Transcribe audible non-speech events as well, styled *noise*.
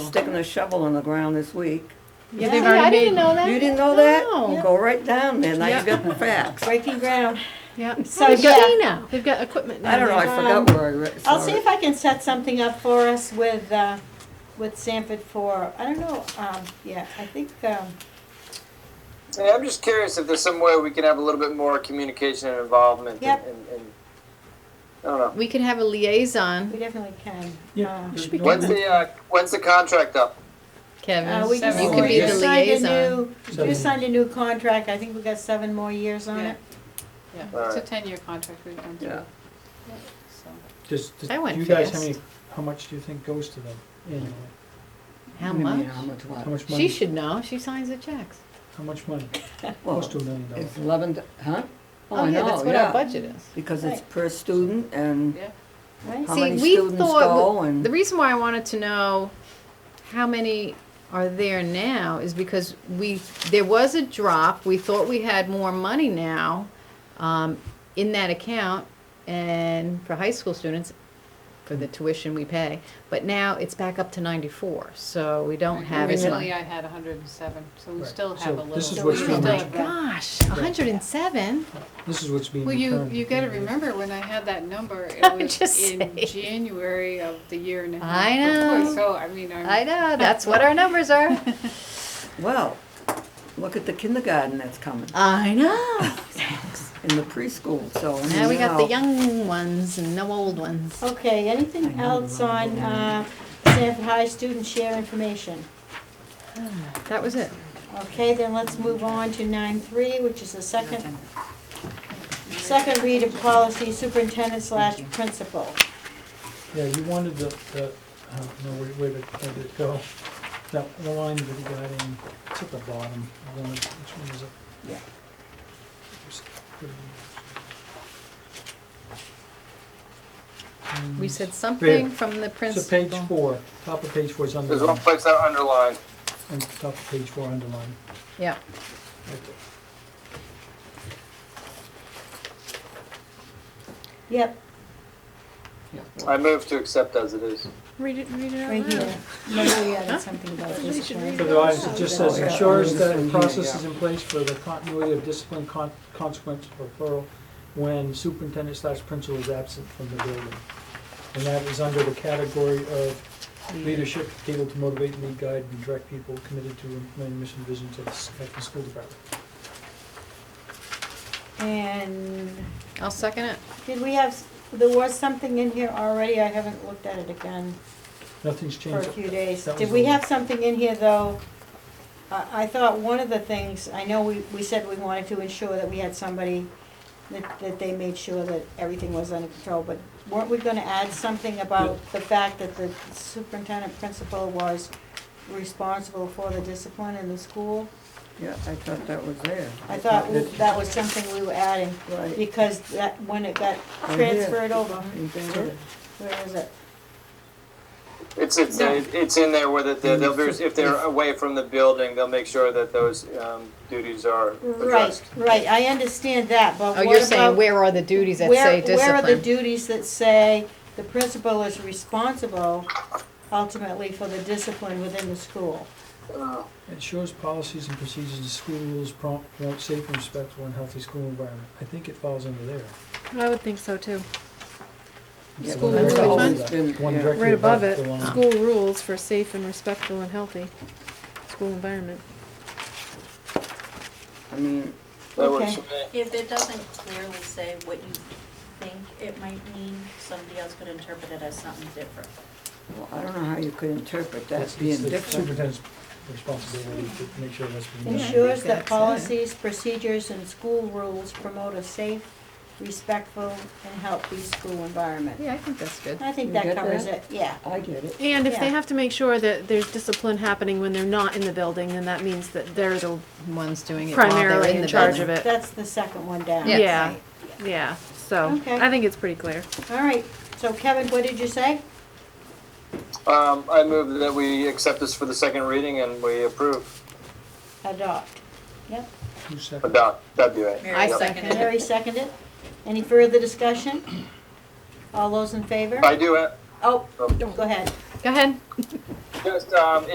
sticking a shovel in the ground this week. Yeah, They've I already didn't made- know that. You didn't know that? No. Go right down there, now you got the *laughs* facts. Breaking ground. Yeah. So, So they've got yeah. now. They've got equipment now. I don't know, I there. forgot where I read, I'll see sorry. if I can set something up for us with, uh, with Sanford for, I don't know, um, yeah, I think, um, Yeah, I'm just curious if there's some way we can have a little bit more communication and involvement. Yep. And, and, and I don't know. We could have a liaison, we definitely can. Yeah. Uh, Should be When's the uh, when's the contract up? Kevin. Uh, we can you see. could be You the signed a liaison. new- Seven. You signed a new contract, I think we got seven more years on Yeah. it. Yeah, it's a Alright. ten-year contract we've done Yeah. through, so. Just, do I went you guys, how fast. many, how much do you think goes to them annually? How What do you mean, much? How much How what? much She money, should know. She signs the checks. how much money? Close to a Well, million dollars. it's eleven, d- huh? Oh, I yeah, know, that's what yeah. our budget is. Because it's Right. per student and Right? how See, many we students thought go and. The reason why I wanted to know how many are there now is because we, there was a drop, we thought we had more money now, um, in that account and for high school students, for the tuition we pay, but now it's back up to ninety-four, so we don't have as much. Originally, I had hundred and seven, so we Right. still have So a little. this is so what's we still being- have that. Gosh, hundred and seven? This is what's being. Well, you, returned. you gotta remember, when I had that number, *laughs* I'm it just was in saying. January of the year and a half. I before, know. So, I mean, I'm. I know, that's what our numbers are. Well, look at the kindergarten that's coming I know. and the preschool, so. I mean, Now we you got the know, young ones and no old ones. Okay, anything I know, else I on, know. uh, Sanford High student share information? That was it. Okay, then let's move on to nine three, which is the second, second read of policy superintendent slash principal. Yeah, you wanted the, the, uh, no, wait, wait, a- where did it go? That line that you got in, it's at the bottom, I wanted, which one is it? Yeah. Just put it in. We said something Really? from the principal. Mm. So page four, top of page four is There's one underlined, place I underlined. and top of page four underlined. Yeah, right there. Yep, I moved to accept as it is. read it, read it right out loud. here. Maybe we added something about discipline. For the audience, it just says Yeah. ensures that Yeah. processes in place for the continuity of discipline con- consequence or plural when superintendent slash principal is absent from the building. And that is under the category of leadership able to motivate, lead, guide, and direct people committed to implementing mission visions of the s- at the school department. And I'll second it. did we have, there was something in here already, I haven't looked at it again Nothing's for a changed. few days. That was Did we the- have something in here, though? I, I thought one of the things, I know we, we said we wanted to ensure that we had somebody, that, that they made sure that everything was under control, but weren't we gonna add something about the fact that the superintendent principal was responsible for the discipline in the school? Yeah, I thought that was there. I thought we- that was something we were adding, Right. because that, when it got Right here. transferred over, Anything where is it? It's it's it's in there where that the, they'll be, if they're away from the building, they'll make sure that those um, duties are Right, addressed. right, I understand that, but Oh, what you're saying about- where are the duties that where- say Where are the discipline? duties that say the principal is responsible ultimately for the discipline within the school? Uh, Ensures policies and procedures in schools prompt, promote safe and respectful and healthy school environment. I think it falls under there. I would think so too. Yeah, School that's rules, always One been- directly yeah. Right above it, the line. school rules for safe and respectful and healthy school environment. I mean, that works Okay. for me. If it doesn't clearly say what you think it might mean, somebody else could interpret it as something different. well, I don't know how you could interpret that It's- being it's the different. Superintendent's responsibility to make sure that's being done. Ensures that that's it. policies, procedures, and school rules promote a safe, respectful, and healthy school environment. Yeah, I think that's good. I think You that get covers that? it, yeah. I get it. And if they Yeah. have to make sure that there's discipline happening when they're not in the building, then that means that they're the, One's doing it while they're primarily in in the charge of building. it. That's the second one down. Yes. Yeah, yeah, so, Okay. I think it's pretty clear. All right, so Kevin, what did you say? Um, I move that we accept this for the second reading and we approve. Adopt. Yep. Two seconds. Adopt. That'd be right. Mary Yep. seconded it. Mary seconded. Any further discussion? All those in favor? I do uh, it. Oh, go ahead. Go ahead. just, um,